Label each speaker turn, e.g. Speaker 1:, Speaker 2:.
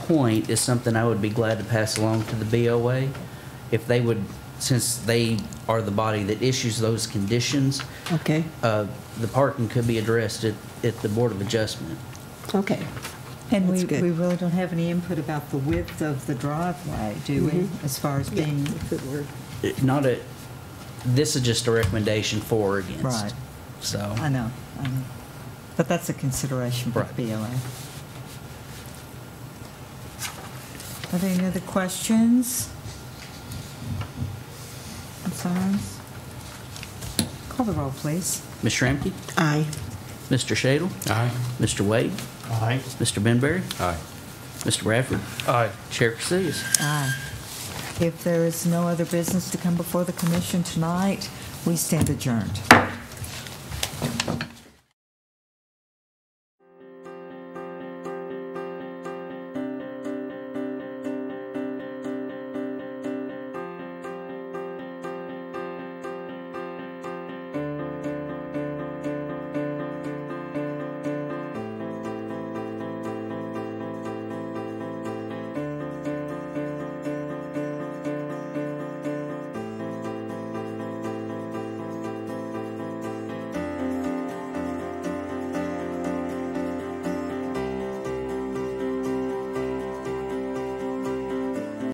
Speaker 1: point is something I would be glad to pass along to the BOA. If they would, since they are the body that issues those conditions,
Speaker 2: Okay,
Speaker 1: uh, the parking could be addressed at, at the Board of Adjustment.
Speaker 2: okay.
Speaker 3: And
Speaker 2: That's
Speaker 3: we,
Speaker 2: good.
Speaker 3: we really don't have any input about the width of the driveway, do we?
Speaker 2: Mm-hmm.
Speaker 3: As far as being,
Speaker 2: If it were-
Speaker 1: It- Not a, this is just a recommendation for or against.
Speaker 3: Right.
Speaker 1: So,
Speaker 3: I know, I know. But that's a consideration for
Speaker 1: Right.
Speaker 3: BOA. Are there any other questions? Concerns? Call the roll, please.
Speaker 1: Ms. Shramky?
Speaker 2: Aye.
Speaker 1: Mr. Shadle?
Speaker 4: Aye.
Speaker 1: Mr. Wade?
Speaker 4: Aye.
Speaker 1: Mr. Benberry?
Speaker 4: Aye.
Speaker 1: Mr. Bradford?
Speaker 4: Aye.
Speaker 1: Chair Casillas?
Speaker 3: Aye. If there is no other business to come before the commission tonight, we stand adjourned.